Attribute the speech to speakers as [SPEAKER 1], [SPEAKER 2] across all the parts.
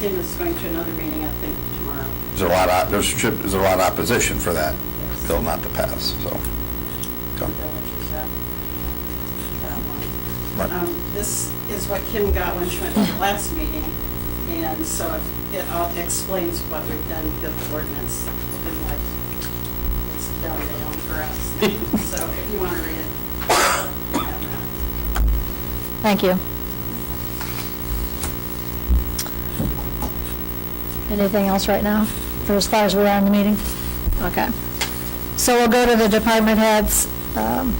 [SPEAKER 1] Tim is going to another meeting, I think, tomorrow.
[SPEAKER 2] There's a lot, of- there's, trip- there's a lot of opposition for that bill not to pass, so.
[SPEAKER 1] The
[SPEAKER 2] okay.
[SPEAKER 1] village is up. That one.
[SPEAKER 2] Right.
[SPEAKER 1] Um, This is what Kim got when she went to the last meeting, and so it- it all explains what we've done with the ordinance. and like, It's down down for us, so if you want to read it. you have that.
[SPEAKER 3] Thank you. Anything else right now, for as far as we're on the meeting? Okay. So we'll go to the department heads. Um,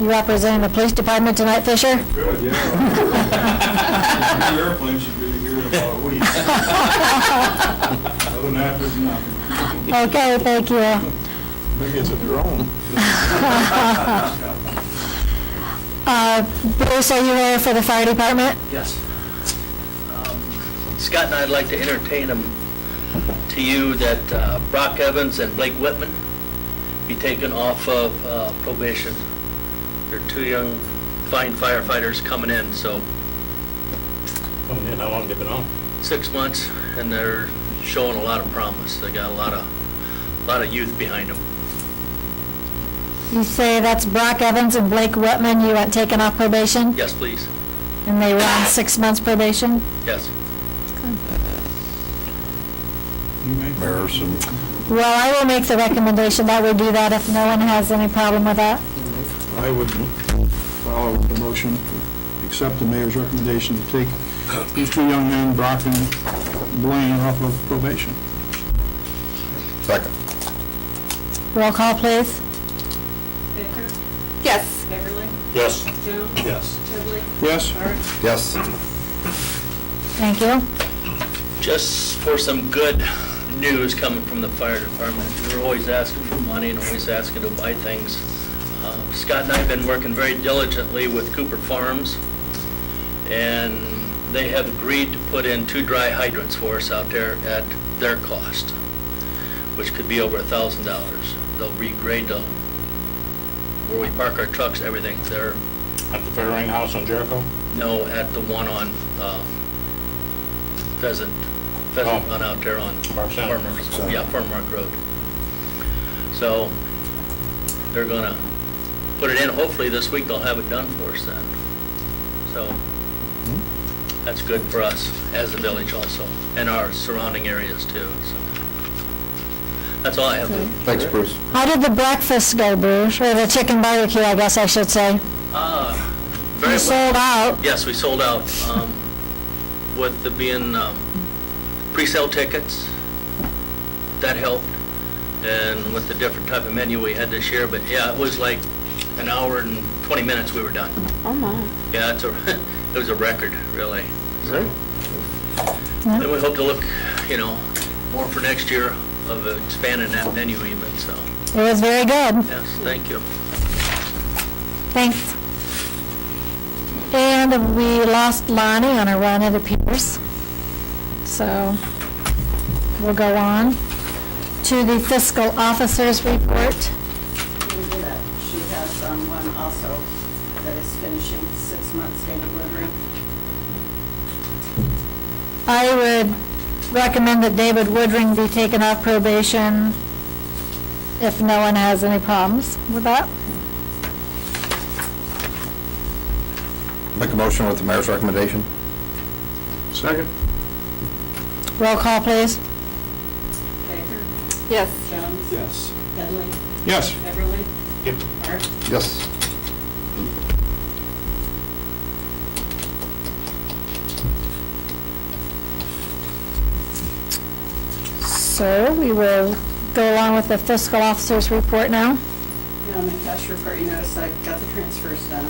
[SPEAKER 3] You representing the police department tonight, Fisher?
[SPEAKER 4] Good, yeah. Your airplane should be here in about a week. Other than that, there's nothing.
[SPEAKER 3] Okay, thank you.
[SPEAKER 4] Maybe it's a drone.
[SPEAKER 3] Uh, Bruce, are you there for the fire department?
[SPEAKER 5] Yes. Um, Scott and I'd like to entertain them to you that uh, Brock Evans and Blake Whitman be taken off of uh, probation. They're two young fine firefighters coming in, so
[SPEAKER 6] Coming in, how long they been on?
[SPEAKER 5] six months, and they're showing a lot of promise. They got a lot of, lot of youth behind them.
[SPEAKER 3] You say that's Brock Evans and Blake Whitman, you want taken off probation?
[SPEAKER 5] Yes, please.
[SPEAKER 3] And they were on six months probation?
[SPEAKER 5] Yes.
[SPEAKER 4] You make
[SPEAKER 2] Mayor's and
[SPEAKER 3] Well, I will make the recommendation that we do that if no one has any problem with that.
[SPEAKER 4] I would follow the motion, accept the mayor's recommendation to take these two young men, Brock and Blaine, off of probation.
[SPEAKER 2] second.
[SPEAKER 3] Roll call, please.
[SPEAKER 1] Baker?
[SPEAKER 7] Yes.
[SPEAKER 1] Beverly?
[SPEAKER 6] Yes.
[SPEAKER 1] Jones?
[SPEAKER 6] Yes.
[SPEAKER 1] Trively?
[SPEAKER 4] Yes?
[SPEAKER 1] Art?
[SPEAKER 2] Yes,
[SPEAKER 3] Thank you.
[SPEAKER 5] just for some good news coming from the fire department. They're always asking for money and always asking to buy things. Uh, Scott and I have been working very diligently with Cooper Farms, and they have agreed to put in two dry hydrants for us out there at their cost, which could be over a thousand dollars. They'll regrade the, where we park our trucks, everything. They're,
[SPEAKER 6] At the Fairrain House on Jericho?
[SPEAKER 5] no, at the one on um, Pheasant, Pheasant
[SPEAKER 6] Oh.
[SPEAKER 5] Run out there on
[SPEAKER 6] Farm Center.
[SPEAKER 5] Farmer, yeah, Farm Rock Road. So they're gonna put it in, hopefully this week they'll have it done for us then. So that's good for us as a village also, and our surrounding areas too, so. That's all I have.
[SPEAKER 2] thanks, Bruce.
[SPEAKER 3] How did the breakfast go, Bruce? Or the chicken barbecue, I guess I should say.
[SPEAKER 5] Ah, very
[SPEAKER 3] You
[SPEAKER 5] well.
[SPEAKER 3] sold out.
[SPEAKER 5] Yes, we sold out, um, with the being, um, pre-sale tickets, that helped. And with the different type of menu we had this year, but yeah, it was like an hour and twenty minutes we were done.
[SPEAKER 7] Oh, my.
[SPEAKER 5] Yeah, it's a, it was a record, really.
[SPEAKER 4] Great.
[SPEAKER 5] And we hope to look, you know, more for next year of expanding that menu even, so,
[SPEAKER 3] It was very good.
[SPEAKER 5] yes, thank you.
[SPEAKER 3] Thanks. And we lost Lonnie on a run, it appears. So we'll go on to the fiscal officer's report.
[SPEAKER 1] We did it. She has um, one also that is finishing six months in delivery.
[SPEAKER 3] I would recommend that David Woodring be taken off probation if no one has any problems with that.
[SPEAKER 2] Make a motion with the mayor's recommendation?
[SPEAKER 4] Second?
[SPEAKER 3] Roll call, please.
[SPEAKER 1] Baker?
[SPEAKER 7] Yes.
[SPEAKER 1] Jones?
[SPEAKER 4] Yes.
[SPEAKER 1] Headley?
[SPEAKER 4] Yes.
[SPEAKER 1] Beverly?
[SPEAKER 6] Yep.
[SPEAKER 1] Art?
[SPEAKER 2] Yes.
[SPEAKER 3] So we will go along with the fiscal officer's report now.
[SPEAKER 1] And on the cash report, you notice I got the transfers done.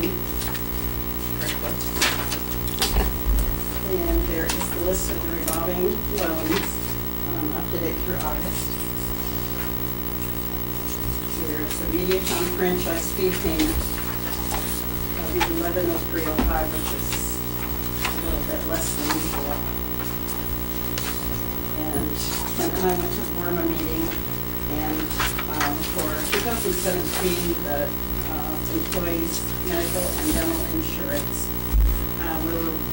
[SPEAKER 1] And there is the list of the revolving loans, um, updated through August. There's a MediaCom franchise fee payment of eleven oh three oh five, which is a little bit less than usual. And Clint and I went to the Burma meeting, and um, for 2017, the uh, employees' medical and dental insurance